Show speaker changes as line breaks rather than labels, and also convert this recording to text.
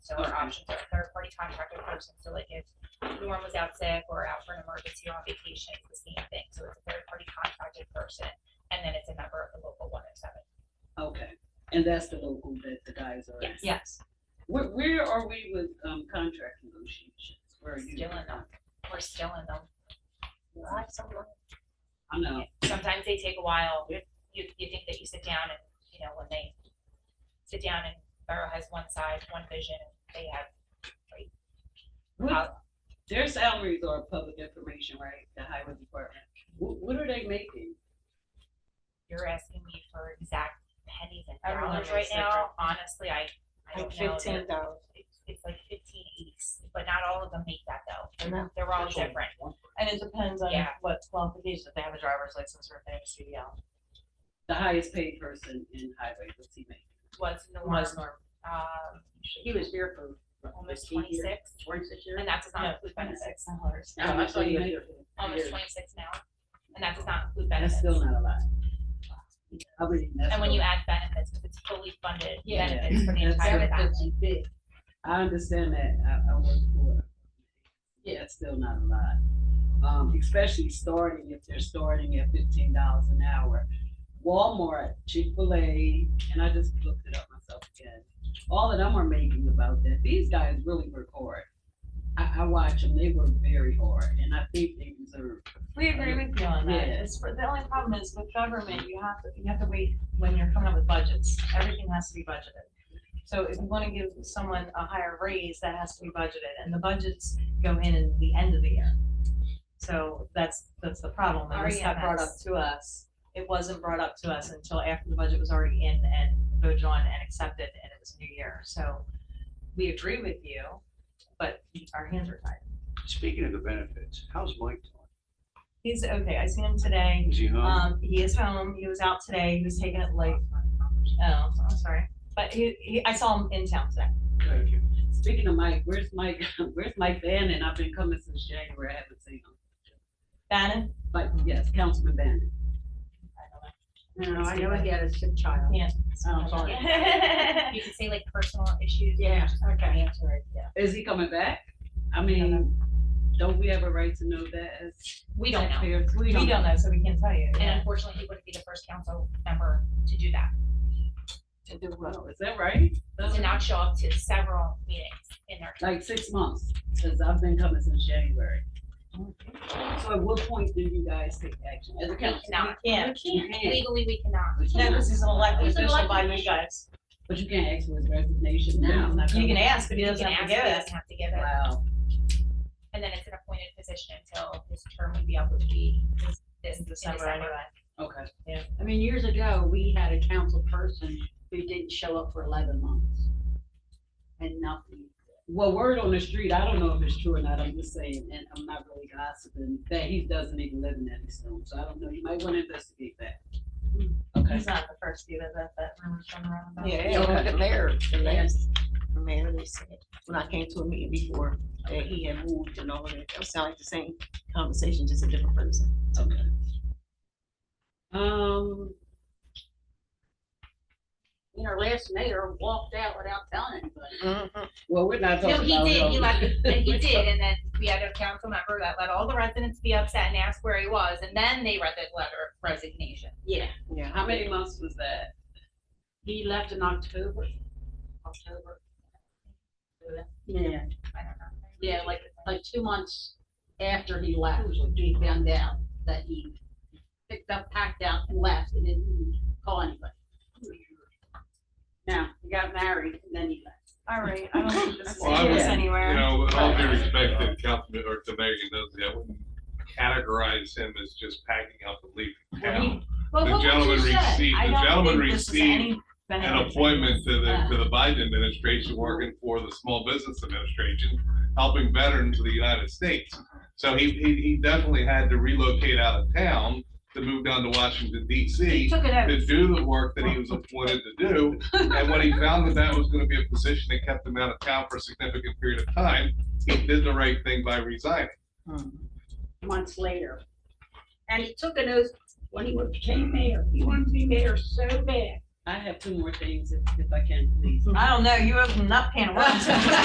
So our options are third-party contractor person, so like if Norm was out sick or out for an emergency or on vacation, it's the same thing. So it's a third-party contracted person, and then it's a member of the local one oh seven.
Okay, and that's the local that the guys are in.
Yes.
Where, where are we with, um, contract negotiations? Where are you?
Still in them. We're still in them. Lots of work.
I know,
Sometimes they take a while. You, you think that you sit down and, you know, when they sit down and Borough has one size, one vision, and they have
what, their salaries are public information, right, the highway department, what, what are they making?
you're asking me for exact pennies and
Everyone
dollars right
is
now, honestly, I, I
Like
don't know.
fifteen dollars.
It's- It's like fifteen eighties, but not all of them make that though,
No.
they're, they're all
That's all.
different,
And it depends on
Yeah.
what qualifications, if they have a driver's license or if they have a
The highest paid person in highway, what's he making?
was
CDL.
Norm,
Was normal.
um,
He was here for what, 15
almost
years?
twenty-six,
Twenty-six years?
and that does
No,
not include benefits,
twenty-six dollars.
Oh,
No, I thought he was
Yeah.
here for
almost
years.
twenty-six now, and that does not include
That's
benefits.
still not a lot. I mean, that's.
And when you
still-
add benefits, because it's fully funded
Yeah.
benefits for the
That's
entire family.
big.
I understand that, I, I work for. Yeah, it's still not a lot, um, especially starting, if they're starting at fifteen dollars an hour. Walmart, Chick-fil-A, and I just looked it up myself again, all of them are making about that, these guys really work hard. I, I watch them, they work very hard, and I think they deserve,
We agree with you on that.
Yeah.
It's, for- the only problem is with government, you have to, you have to wait when you're coming up with budgets. Everything has to be budgeted. So if you wanna give someone a higher raise, that has to be budgeted, and the budgets go in at the end of the year. So that's, that's the problem, and this got brought up
REMS.
to us. It wasn't brought up to us until after the budget was already in and voted on and accepted, and it was new year, so we agree with you, but our hands are tied.
Speaking of the benefits, how's Mike doing?
He's, okay, I seen him today,
Is he home?
Um, he is home. He was out today. He was taking it late. Oh, I'm sorry. But he, he, I saw him in town today.
Thank you.
speaking of Mike, where's Mike, where's Mike Bannon, I've been coming since January, I haven't seen him.
Bannon?
But yes, Councilman Bannon.
No, I know he had a sick child.
Yeah.
Oh, sorry.
Yeah.
You could say like personal issues.
Yeah, okay.
Is he coming back? I mean, don't we have a right to know that as
We don't know,
taxpayers?
We don't know, so we can't tell you.
and unfortunately, he wouldn't be the first council member to do that,
To do what?
Well, Is that right?
to not show up to several meetings in their
Like six months, because I've been coming since January. So at what point do you guys take action as a council?
cannot.
We can't.
You can't,
Legally, we cannot.
We
No,
can't.
because he's an elected
He's an
official by
elected
you guys.
But you can't ask for his resignation now.
You can ask, but he
You
doesn't
can
have to
ask,
give
but he
it.
doesn't have to give it.
Wow.
And then it's an appointed position until his term would be up, which would be this, this
In
in
December anyway.
December.
Okay.
I mean, years ago, we had a council person who didn't show up for eleven months. And nothing.
Well, word on the street, I don't know if it's true or not, I'm just saying, and I'm not really gossiping, that he doesn't even live in Eddystone, so I don't know, you might want to investigate that.
Hmm.
Okay.
He's not the first either that, that rumor's going around about.
Okay.
Yeah, well, the mayor, the mayor, the mayor, they said, when I came to a meeting before, that he had moved and all of that, that sounded like the same conversation, just a different person.
Okay. Um,
You know, last mayor walked out without telling anybody.
well, we're not talking
No,
about.
he did, he
him.
left, and he did, and then we had a council member that let all the residents be upset and ask where he was, and then they read the letter of resignation.
Yeah,
Yeah.
How many months was that?
he left in October, October. Yeah,
I don't know.
yeah, like, like two months after he left, we found out that he picked up, packed out and left and didn't call anybody. Now, he got married and then he left.
All right, I don't think this is
Well, I
going
would-
anywhere.
You know, with all due respect to Councilman, or to Megan Nosey, I wouldn't categorize him as just packing up and leaving
Well, he-
town.
Well,
The
what would you
gentleman
say?
received-
I
the
don't
gentleman
think this is
received
any benefit.
An appointment to the, to the Biden administration, working for the Small Business Administration, helping veterans of the United States. So he, he, he definitely had to relocate out of town to move down to Washington
He
DC
took it out.
to do the work that he was appointed to do. And when he found that that was gonna be a position that kept him out of town for a significant period of time, he did the right thing by resigning.
hmm.
months later. And he took an oath when he became mayor. He wanted to be mayor so bad.
I have two more things if, if I can, please.
I don't know, you opened up can of worms.